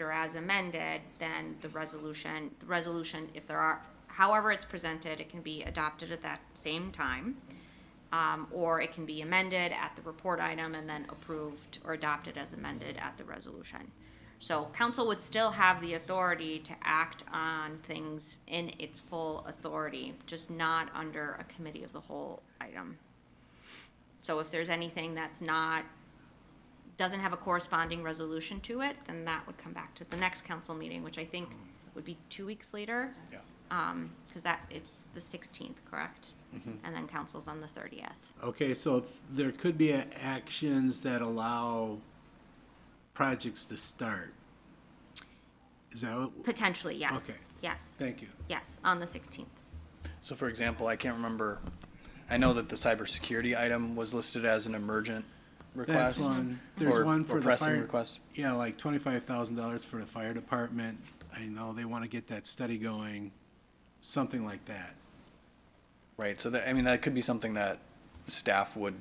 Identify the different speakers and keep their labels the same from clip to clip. Speaker 1: or as amended, then the resolution, the resolution, if there are, however it's presented, it can be adopted at that same time. Um, or it can be amended at the report item and then approved or adopted as amended at the resolution. So council would still have the authority to act on things in its full authority, just not under a committee of the whole item. So if there's anything that's not doesn't have a corresponding resolution to it, then that would come back to the next council meeting, which I think would be two weeks later,
Speaker 2: Yeah,
Speaker 1: because that, it's the sixteenth, correct?
Speaker 2: Mm-hmm.
Speaker 1: And then council's on the thirtieth.
Speaker 3: Okay, so if there could be a- actions that allow projects to start. Is that what,
Speaker 1: Potentially, yes.
Speaker 3: Okay.
Speaker 1: Yes,
Speaker 3: thank you.
Speaker 1: yes, on the sixteenth.
Speaker 2: so for example, I can't remember, I know that the cybersecurity item was listed as an emergent request.
Speaker 3: That's one, there's
Speaker 2: or-
Speaker 3: one
Speaker 2: or
Speaker 3: for the
Speaker 2: pressing
Speaker 3: fire.
Speaker 2: request.
Speaker 3: Yeah, like twenty-five thousand dollars for the fire department. I know they want to get that study going, something like that.
Speaker 2: Right, so that, I mean, that could be something that staff would,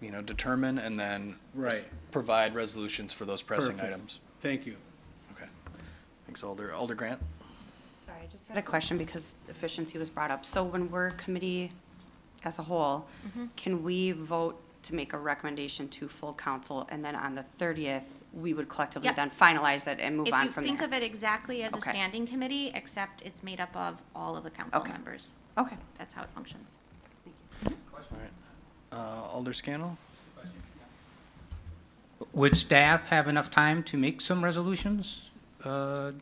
Speaker 2: you know, determine and then.
Speaker 3: Right.
Speaker 2: s- Provide resolutions for those pressing
Speaker 3: Perfect.
Speaker 2: items.
Speaker 3: Thank you.
Speaker 2: Okay. Thanks, Alder. Alder Grant?
Speaker 4: Sorry, I just had a question because efficiency was brought up. So when we're committee as a whole, can we vote to make a recommendation to full council? And then on the thirtieth, we would collectively
Speaker 1: Yep.
Speaker 4: then finalize it and move
Speaker 1: If
Speaker 4: on
Speaker 1: you
Speaker 4: from
Speaker 1: think of
Speaker 4: there?
Speaker 1: it exactly as a
Speaker 4: Okay.
Speaker 1: standing committee, except it's made up of all of the council
Speaker 4: Okay.
Speaker 1: members.
Speaker 4: Okay.
Speaker 1: That's how it functions.
Speaker 2: All right. Uh, Alder Scannell?
Speaker 5: Would staff have enough time to make some resolutions uh,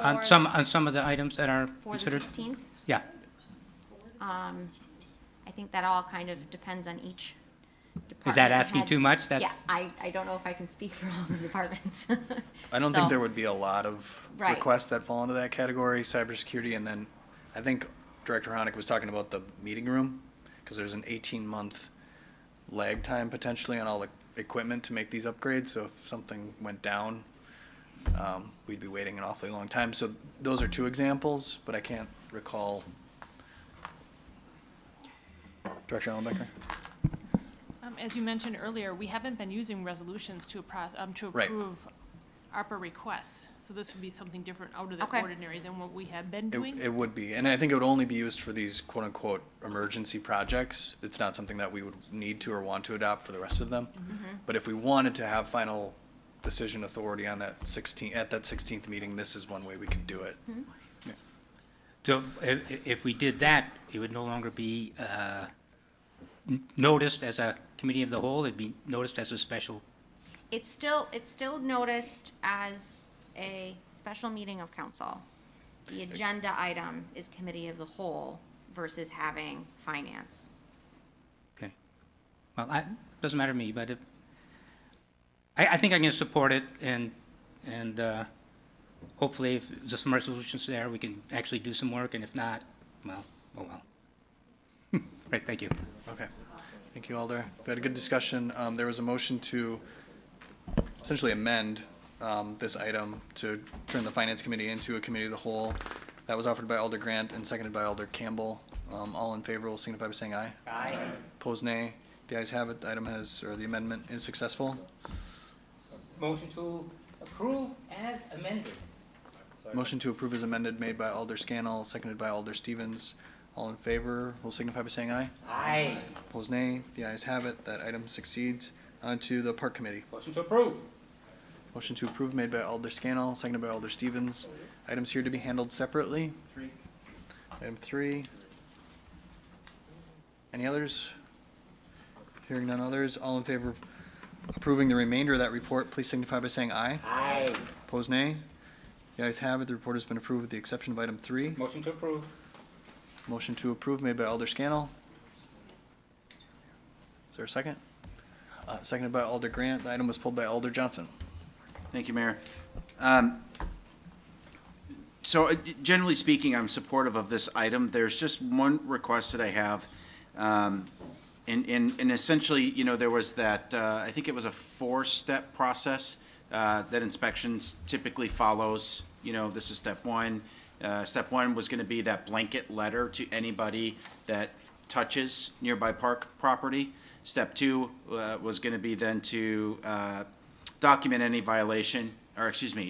Speaker 5: on
Speaker 1: For-
Speaker 5: some, on some of the items that are
Speaker 1: For the
Speaker 5: considered?
Speaker 1: sixteenth,
Speaker 5: Yeah,
Speaker 1: I think that all kind of depends on each department.
Speaker 5: is that asking
Speaker 1: head.
Speaker 5: too much?
Speaker 1: Yeah,
Speaker 5: That's,
Speaker 1: I, I don't know if I can speak for all the departments.
Speaker 2: I don't think
Speaker 1: So-
Speaker 2: there would be a lot of
Speaker 1: Right.
Speaker 2: requests that fall into that category, cybersecurity, and then I think Director Honick was talking about the meeting room, because there's an eighteen-month lag time potentially on all the equipment to make these upgrades, so if something went down, um, we'd be waiting an awfully long time, so those are two examples, but I can't recall. Director Allenbecker?
Speaker 6: Um, As you mentioned earlier, we haven't been using resolutions to appro- um, to
Speaker 2: Right.
Speaker 6: approve ARPA requests. So this would be something different out of
Speaker 1: Okay.
Speaker 6: the ordinary than what we have been
Speaker 2: It,
Speaker 6: doing.
Speaker 2: it would be, and I think it would only be used for these quote-unquote emergency projects. It's not something that we would need to or want to adopt for the rest of them. But if we wanted to have final decision authority on that sixteen, at that sixteenth meeting, this is one way we can do it.
Speaker 5: so i- i- if we did that, it would no longer be uh, n- noticed as a committee of the whole, it'd be noticed as a special,
Speaker 1: It's still, it's still noticed as a special meeting of council. The agenda item is committee of the whole versus having finance.
Speaker 5: okay? Well, I, doesn't matter to me, but if- I, I think I can support it and, and uh, hopefully if there's some resolutions there, we can actually do some work, and if not, well, oh well. Right, thank you.
Speaker 2: Okay. Thank you, Alder. We had a good discussion. Um, there was a motion to essentially amend, um, this item to turn the Finance Committee into a committee of the whole. That was offered by Alder Grant and seconded by Alder Campbell. Um, all in favor will signify by saying aye. Aye. Opposed, nay. The ayes have it. The item has, or the amendment is successful.
Speaker 5: Motion to approve as amended.
Speaker 2: Motion to approve is amended made by Alder Scannell, seconded by Alder Stevens. All in favor will signify by saying aye.
Speaker 5: Aye.
Speaker 2: Opposed, nay. The ayes have it. That item succeeds. On to the Park Committee.
Speaker 5: Motion to approve.
Speaker 2: Motion to approve made by Alder Scannell, seconded by Alder Stevens. Items here to be handled separately. Item three. Any others? Hearing none others, all in favor of approving the remainder of that report, please signify by saying aye.
Speaker 5: Aye.
Speaker 2: Opposed, nay. The ayes have it, the report has been approved with the exception of item three.
Speaker 5: Motion to approve.
Speaker 2: Motion to approve made by Alder Scannell. Is there a second? Uh, seconded by Alder Grant, the item was pulled by Alder Johnson.
Speaker 7: Thank you, Mayor. Um, So uh, generally speaking, I'm supportive of this item. There's just one request that I have. Um, And, and, and essentially, you know, there was that, uh, I think it was a four-step process uh, that inspections typically follows. You know, this is step one. Uh, Step one was going to be that blanket letter to anybody that touches nearby park property. Step two uh, was going to be then to uh, document any violation, or excuse me,